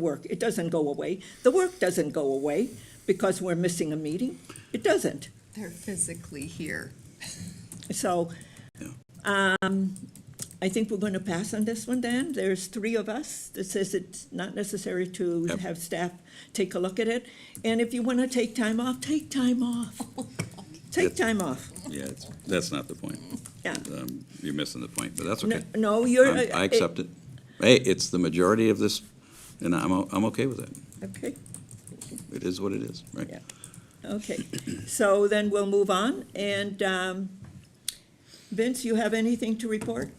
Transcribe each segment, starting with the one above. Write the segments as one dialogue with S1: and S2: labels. S1: work. It doesn't go away. The work doesn't go away because we're missing a meeting. It doesn't.
S2: They're physically here.
S1: So, um, I think we're going to pass on this one, Dan. There's three of us that says it's not necessary to
S3: Yep.
S1: have staff take a look at it. And if you want to take time off, take time off. Take
S3: Yep.
S1: time off.
S3: Yeah, it's- that's not the point.
S1: Yeah.
S3: Um, You're missing the point, but that's
S1: No-
S3: okay.
S1: No, you're. uh,
S3: I'm- I accept it. Hey, it's the majority of this, and I'm, o- I'm okay with that.
S1: uh, Okay,
S3: It is what it is, right?
S1: Yeah. okay. So then we'll move on. And, um, Vince, you have anything to report?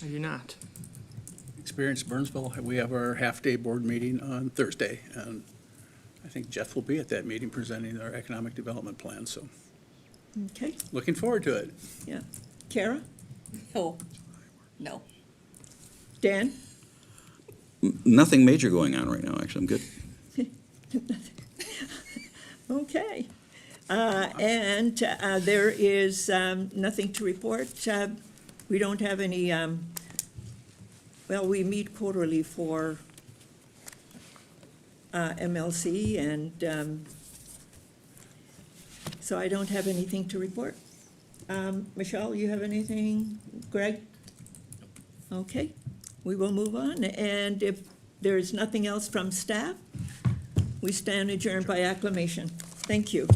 S4: I do not.
S5: Experience Burnsville, we have our half-day board meeting on Thursday, and I think Jeff will be at that meeting presenting our economic development plan, so
S1: Okay,
S5: looking forward to it.
S1: yeah. Kara,
S2: No, no.
S1: Dan?
S3: Nothing major going on right now, actually, I'm good.
S1: Okay. Uh, And uh, there is um, nothing to report. Uh, We don't have any, um, well, we meet quarterly for uh, MLC, and um, so I don't have anything to report. Um, Michelle, you have anything? Greg? Okay, we will move on. And if there is nothing else from staff, we stand adjourned by acclamation. Thank you.